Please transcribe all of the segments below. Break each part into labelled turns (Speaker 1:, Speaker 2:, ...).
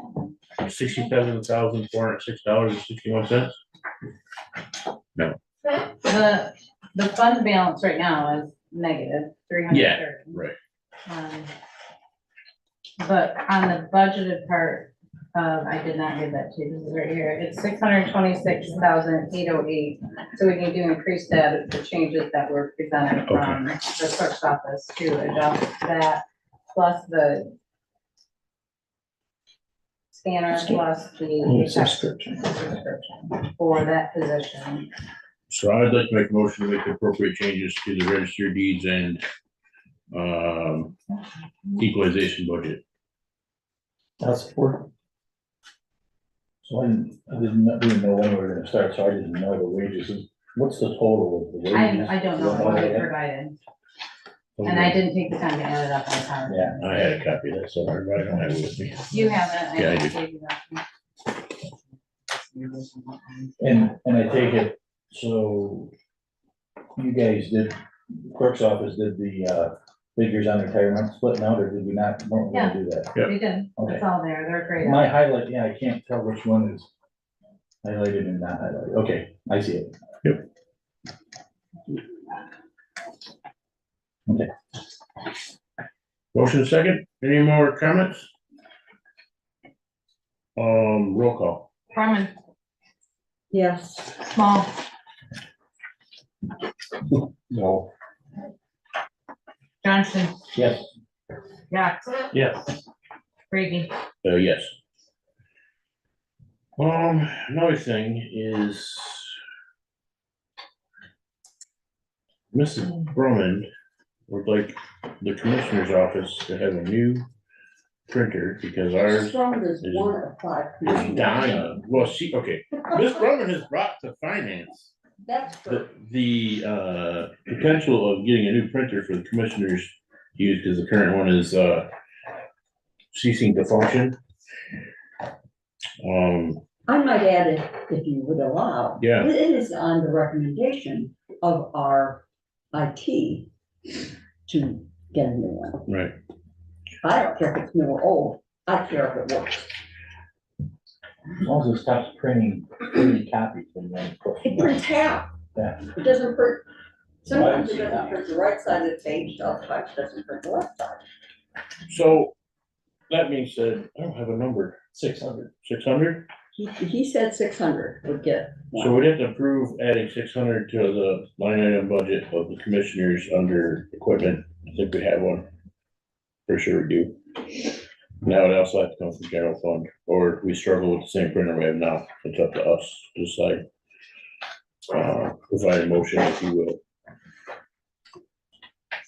Speaker 1: of sixty-seven thousand four hundred six dollars and sixty-one cents.
Speaker 2: The, the fund balance right now is negative, three hundred thirty. Um,
Speaker 1: right.
Speaker 2: But on the budgeted part, um, I did not give that to you, this is right here, it's six hundred twenty-six thousand eight oh eight. So we need to increase that, the changes that were presented from the clerk's office to adjust that, plus the scanner, plus the
Speaker 3: Oh,
Speaker 4: Subscription.
Speaker 2: subscription for that position.
Speaker 1: So I'd like to make a motion to make the appropriate changes to the register deeds and um, equalization budget.
Speaker 4: That's for.
Speaker 5: So I didn't, I didn't, I didn't know when we were gonna start, so I didn't know the wages, Is- what's the total of the wages?
Speaker 2: I, I don't know
Speaker 5: You
Speaker 2: what
Speaker 5: know
Speaker 2: they
Speaker 5: that?
Speaker 2: provided, and I didn't take the time to add it up on time.
Speaker 5: Yeah,
Speaker 1: I had a copy of that, so I don't have it with me.
Speaker 2: You haven't,
Speaker 1: Yeah, I
Speaker 2: I
Speaker 1: do.
Speaker 2: gave you that.
Speaker 5: and, and I take it, so you guys did, clerk's office did the, uh, figures on retirement splitting out, or did we not, weren't we gonna do that?
Speaker 1: Yeah.
Speaker 2: They did,
Speaker 5: Okay.
Speaker 2: it's all there, they're great.
Speaker 5: My highlight, yeah, I can't tell which one is highlighted and not highlighted, okay, I see it. Yep. Okay,
Speaker 1: Motion second, any more comments? Um, roll call.
Speaker 2: Foreman,
Speaker 3: Yes.
Speaker 2: Small,
Speaker 5: no,
Speaker 2: Johnson,
Speaker 5: yes,
Speaker 2: Yax,
Speaker 4: Yes.
Speaker 2: Brady.
Speaker 1: Uh, yes. Um, another thing is. Mrs. Brumman would like the commissioner's office to have a new printer because ours
Speaker 3: Strong as
Speaker 1: There's-
Speaker 3: one of five.
Speaker 1: is dying. Well, she, okay, Miss Brumman has brought to finance
Speaker 3: That's
Speaker 1: the,
Speaker 3: for,
Speaker 1: the, uh, potential of getting a new printer for the commissioners to use because the current one is, uh, ceasing to function. Um,
Speaker 3: I might add it, if you would allow.
Speaker 1: Yeah.
Speaker 3: It is on the recommendation of our IT to get a new one.
Speaker 1: right,
Speaker 3: I don't care if it's new or old, I care if it works.
Speaker 5: as long as it stops printing thirty copies and then.
Speaker 3: It prints half.
Speaker 5: Yeah.
Speaker 3: It doesn't print, sometimes it
Speaker 5: Right.
Speaker 3: doesn't print the right side of the page, sometimes it doesn't print the left side.
Speaker 1: so that being said, I don't have a number,
Speaker 5: Six hundred.
Speaker 1: six hundred?
Speaker 3: He, he said six hundred would get
Speaker 1: So
Speaker 3: one.
Speaker 1: we'd have to approve adding six hundred to the line item budget of the commissioners under equipment. I think we have one. For sure we do. Now it also has to come from general fund, or if we struggle with the same printer we have now. It's up to us to decide. Uh, provide a motion if you will.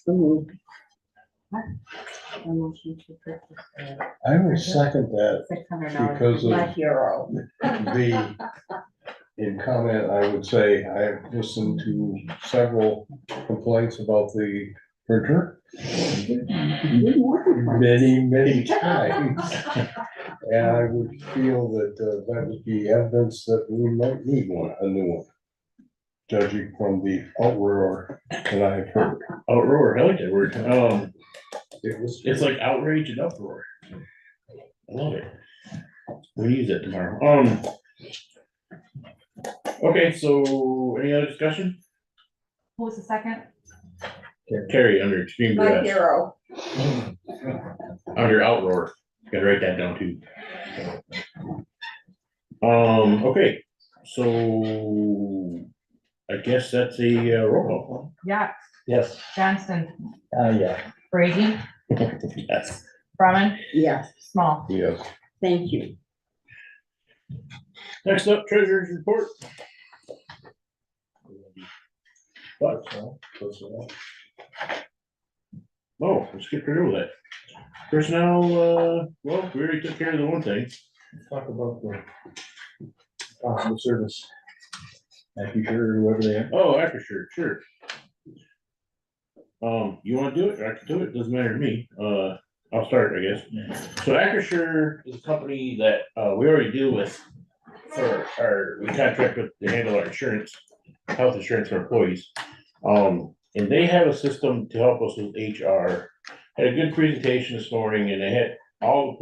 Speaker 3: So moved.
Speaker 2: Six
Speaker 6: I would second that
Speaker 2: hundred dollars.
Speaker 6: because
Speaker 3: My
Speaker 6: of
Speaker 3: hero.
Speaker 6: the, in comment, I would say I have listened to several complaints about the printer
Speaker 4: Mm-hmm.
Speaker 3: Didn't work in my-
Speaker 6: many, many times. And I would feel that uh, that would be evidence that we might need one, a new one. Judging from the uproar that I have heard.
Speaker 1: Outroar, Oh, I like that word. Um,
Speaker 6: It was,
Speaker 1: it's like outrage and uproar. I love it. We'll use it tomorrow. Um. Okay, so any other discussion?
Speaker 2: Who was the second?
Speaker 1: Terry under extreme
Speaker 3: My
Speaker 1: duress,
Speaker 3: hero.
Speaker 1: under outroar, gotta write that down too. Um, okay, so I guess that's a uh, roll
Speaker 2: Yax,
Speaker 5: Yes,
Speaker 2: Johnson,
Speaker 5: uh, yeah.
Speaker 2: Brady,
Speaker 1: call. Yes.
Speaker 2: Brumman,
Speaker 3: Yes,
Speaker 2: Small.
Speaker 6: yes,
Speaker 3: thank you.
Speaker 1: Next up, treasurer's report. What? Oh, let's get rid of that. Personnel, uh, well, we already took care of the one thing.
Speaker 5: Talk about the possible service. Thank you, sure, whoever they are.
Speaker 1: Oh, after sure, sure. Um, you wanna do it? I can do it, doesn't matter to me, uh, I'll start, I guess. So Acrisure is a company that, uh, we already deal with for our, we contract with to handle our insurance, health insurance for employees. Um, and they have a system to help us with HR. Had a good presentation this morning and they had all the